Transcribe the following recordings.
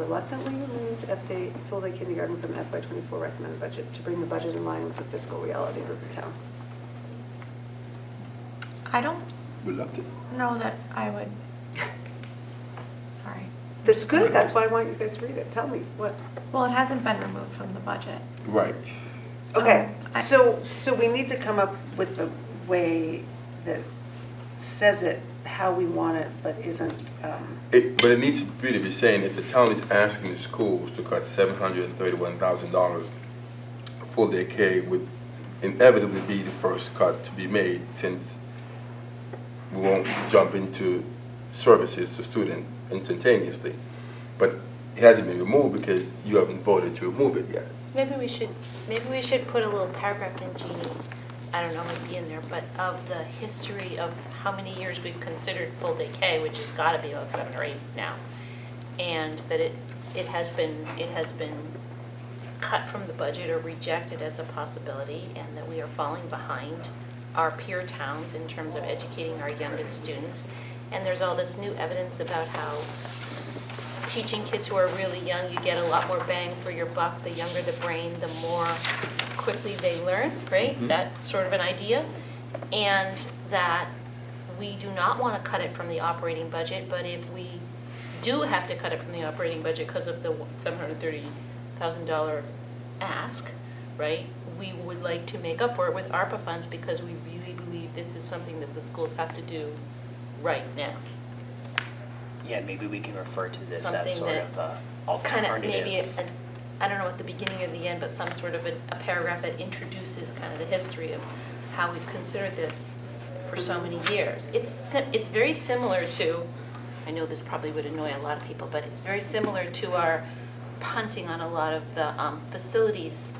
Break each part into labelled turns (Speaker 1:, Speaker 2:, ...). Speaker 1: reluctantly removed FY, full day kindergarten from FY twenty-four recommended budget to bring the budget in line with the fiscal realities of the town.
Speaker 2: I don't
Speaker 3: We loved it.
Speaker 2: know that I would, sorry.
Speaker 1: That's good, that's why I want you guys to read it, tell me what.
Speaker 2: Well, it hasn't been removed from the budget.
Speaker 3: Right.
Speaker 2: So
Speaker 1: Okay,
Speaker 2: I-
Speaker 1: so, so we need to come up with a way that says it how we want it, but isn't, um,
Speaker 4: It, but it needs to really be saying if the town is asking the schools to cut seven hundred and thirty-one thousand dollars, full day K would inevitably be the first cut to be made since we won't jump into services to student instantaneously. But it hasn't been removed because you haven't voted to remove it yet.
Speaker 5: Maybe we should, maybe we should put a little paragraph in Jeannie, I don't know, maybe in there, but of the history of how many years we've considered full day K, which has got to be like seven or eight now. And that it, it has been, it has been cut from the budget or rejected as a possibility and that we are falling behind our peer towns in terms of educating our youngest students. And there's all this new evidence about how teaching kids who are really young, you get a lot more bang for your buck. The younger the brain, the more quickly they learn, right?
Speaker 3: Mhm.
Speaker 5: That sort of an idea. And that we do not want to cut it from the operating budget, but if we do have to cut it from the operating budget because of the $730,000 ask, right? We would like to make up for it with ARPA funds because we really believe this is something that the schools have to do right now.
Speaker 6: Yeah, maybe we can refer to this
Speaker 5: Something
Speaker 6: as sort
Speaker 5: that
Speaker 6: of a
Speaker 5: kind of maybe,
Speaker 6: alternative.
Speaker 5: a- I don't know at the beginning or the end, but some sort of a a paragraph that introduces kind of the history of how we've considered this for so many years. It's, si- it's very similar to, I know this probably would annoy a lot of people, but it's very similar to our punting on a lot of the um, facilities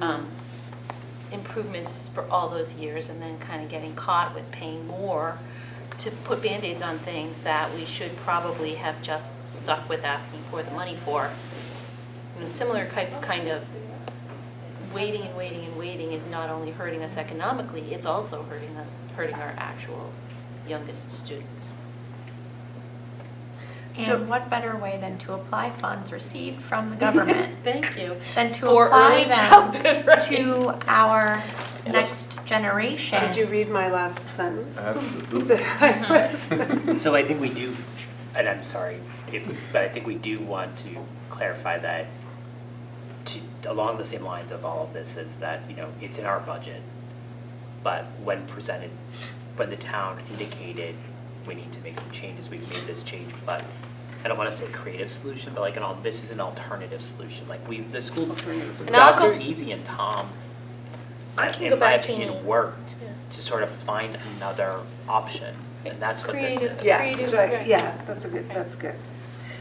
Speaker 5: um, improvements for all those years and then kind of getting caught with paying more to put Band-Aids on things that we should probably have just stuck with asking for the money for. You know, similar ki- kind of waiting and waiting and waiting is not only hurting us economically, it's also hurting us, hurting our actual youngest students.
Speaker 1: So-
Speaker 2: And what better way than to apply funds received from the government
Speaker 5: Thank you.
Speaker 2: than to
Speaker 5: For
Speaker 2: apply
Speaker 5: early childhood,
Speaker 2: them
Speaker 5: right.
Speaker 2: to our next generation?
Speaker 1: did you read my last sentence?
Speaker 4: Absolutely.
Speaker 1: That I was-
Speaker 6: So I think we do, and I'm sorry, if- but I think we do want to clarify that to, along the same lines of all of this is that, you know, it's in our budget, but when presented, when the town indicated we need to make some changes, we've made this change, but I don't want to say creative solution, but like an all, this is an alternative solution, like we, the school,
Speaker 5: And I'll
Speaker 6: Dr.
Speaker 5: go-
Speaker 6: Easy and Tom,
Speaker 5: I can go
Speaker 6: in my
Speaker 5: back to
Speaker 6: opinion,
Speaker 5: Ian.
Speaker 6: worked
Speaker 5: Yeah.
Speaker 6: to sort of find another option, and that's what this
Speaker 5: Creative.
Speaker 6: is.
Speaker 1: Yeah,
Speaker 5: Creative,
Speaker 1: right,
Speaker 5: right.
Speaker 1: yeah, that's a good, that's good.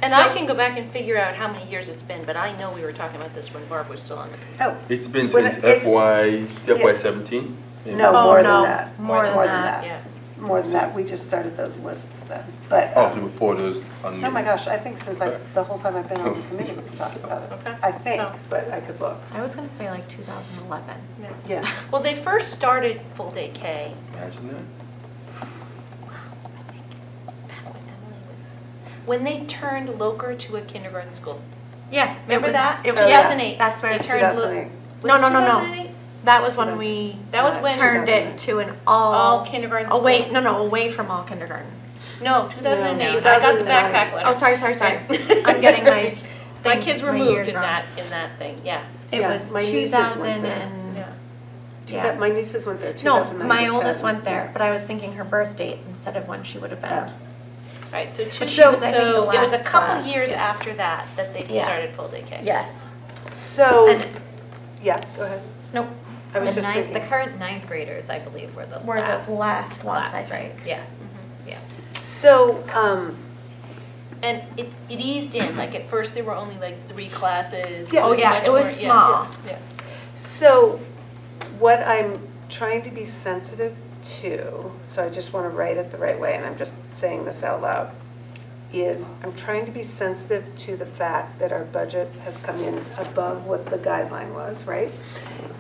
Speaker 5: And I
Speaker 1: So-
Speaker 5: can go back and figure out how many years it's been, but I know we were talking about this when Barb was still on the committee.
Speaker 1: Oh,
Speaker 4: It's been
Speaker 1: When
Speaker 4: since
Speaker 1: it's-
Speaker 4: FY,
Speaker 1: Yeah.
Speaker 4: FY seventeen?
Speaker 1: no,
Speaker 2: Oh,
Speaker 1: more than
Speaker 2: no,
Speaker 1: that.
Speaker 2: more than that,
Speaker 5: Yeah.
Speaker 1: More than that, we just started those lists then, but. um,
Speaker 4: Oh, before those. on- Oh.
Speaker 1: Oh my gosh, I think since I, the whole time I've been on the committee, we've talked about it.
Speaker 5: Okay.
Speaker 1: I think,
Speaker 5: So-
Speaker 1: but I could look.
Speaker 2: I was going to say like 2011. Oh.
Speaker 1: Yeah.
Speaker 5: Well, they first started full day K.
Speaker 4: Imagine that.
Speaker 5: I think, back when Emily was- When they turned Loker to a kindergarten school.
Speaker 2: Yeah. it
Speaker 5: Remember
Speaker 2: was-
Speaker 5: that?
Speaker 2: It was,
Speaker 5: 2008.
Speaker 2: That's where
Speaker 5: They
Speaker 2: it
Speaker 5: turned Lo-
Speaker 1: 2008.
Speaker 5: was
Speaker 2: No,
Speaker 5: it
Speaker 2: no, no, no.
Speaker 5: 2008?
Speaker 2: That was when we.
Speaker 5: That was
Speaker 2: uh,
Speaker 5: when-
Speaker 2: Turned it to an all.
Speaker 5: All kindergarten
Speaker 2: Away,
Speaker 5: school.
Speaker 2: no, no, away from all kindergarten.
Speaker 5: No, 2008. I got the
Speaker 1: 2009.
Speaker 5: backpack letter.
Speaker 2: Oh, sorry, sorry, sorry.
Speaker 5: Right.
Speaker 2: I'm getting my.
Speaker 5: My
Speaker 2: thing-
Speaker 5: kids were
Speaker 2: my
Speaker 5: moved
Speaker 2: years
Speaker 5: in
Speaker 2: wrong.
Speaker 5: that, in that thing, yeah.
Speaker 2: It
Speaker 1: Yeah,
Speaker 2: was
Speaker 1: my
Speaker 2: two
Speaker 1: nieces went
Speaker 2: thousand
Speaker 1: there.
Speaker 2: and,
Speaker 5: Yeah.
Speaker 2: yeah.
Speaker 1: My nieces went there, 2009
Speaker 2: No, my
Speaker 1: to
Speaker 2: oldest
Speaker 1: 10.
Speaker 2: went there, but I was thinking her birth date instead of when she would have
Speaker 1: Yeah.
Speaker 2: been.
Speaker 5: All right, so two,
Speaker 2: But
Speaker 5: so
Speaker 2: she was, I think, the
Speaker 5: it was a
Speaker 2: last
Speaker 5: couple
Speaker 2: class.
Speaker 5: years
Speaker 2: Yeah.
Speaker 5: after that, that they
Speaker 2: Yeah.
Speaker 5: started full day
Speaker 1: Oh.
Speaker 5: K.
Speaker 2: Yes.
Speaker 1: So,
Speaker 2: And,
Speaker 1: yeah, go ahead.
Speaker 2: nope,
Speaker 1: I was
Speaker 7: The
Speaker 1: just
Speaker 7: ninth, the
Speaker 1: thinking.
Speaker 7: current ninth graders, I believe, were the
Speaker 2: Were the
Speaker 7: last.
Speaker 2: last ones, I
Speaker 7: class, right?
Speaker 2: think.
Speaker 7: Yeah,
Speaker 5: Mm-hmm.
Speaker 7: yeah.
Speaker 1: So, um,
Speaker 5: And it, it eased in, like at first there were only like three classes.
Speaker 1: Yeah.
Speaker 2: oh
Speaker 1: Pretty
Speaker 2: yeah,
Speaker 5: much
Speaker 2: it was
Speaker 5: more- yeah,
Speaker 2: small.
Speaker 5: Yeah.
Speaker 1: So what I'm trying to be sensitive to, so I just want to write it the right way, and I'm just saying this out loud, is I'm trying to be sensitive to the fact that our budget has come in above what the guideline was, right?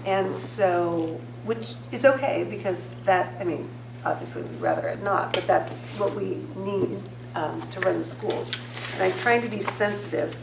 Speaker 1: And so, which is okay, because that, I mean, obviously we'd rather it not, but that's what we need um, to run the schools. And I'm trying to be sensitive